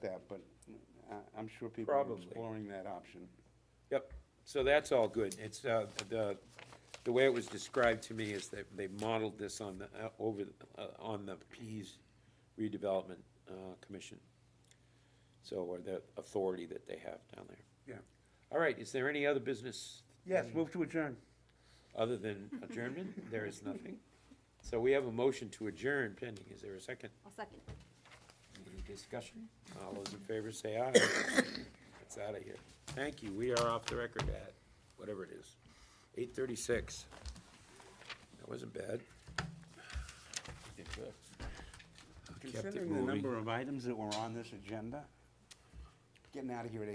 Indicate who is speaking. Speaker 1: that, but I, I'm sure people are
Speaker 2: Probably.
Speaker 1: exploring that option.
Speaker 2: Yep, so that's all good. It's, uh, the, the way it was described to me is that they modeled this on the, uh, over, uh, on the Pease redevelopment, uh, commission. So, or the authority that they have down there.
Speaker 1: Yeah.
Speaker 2: All right, is there any other business?
Speaker 1: Yes, move to adjourn.
Speaker 2: Other than adjournment? There is nothing. So we have a motion to adjourn pending. Is there a second?
Speaker 3: I'll second.
Speaker 2: Any discussion? All those in favor say aye. It's out of here. Thank you. We are off the record at whatever it is, eight thirty-six. That wasn't bad. Kept it
Speaker 1: Considering the
Speaker 2: moving.
Speaker 1: number of items that were on this agenda, getting out of here at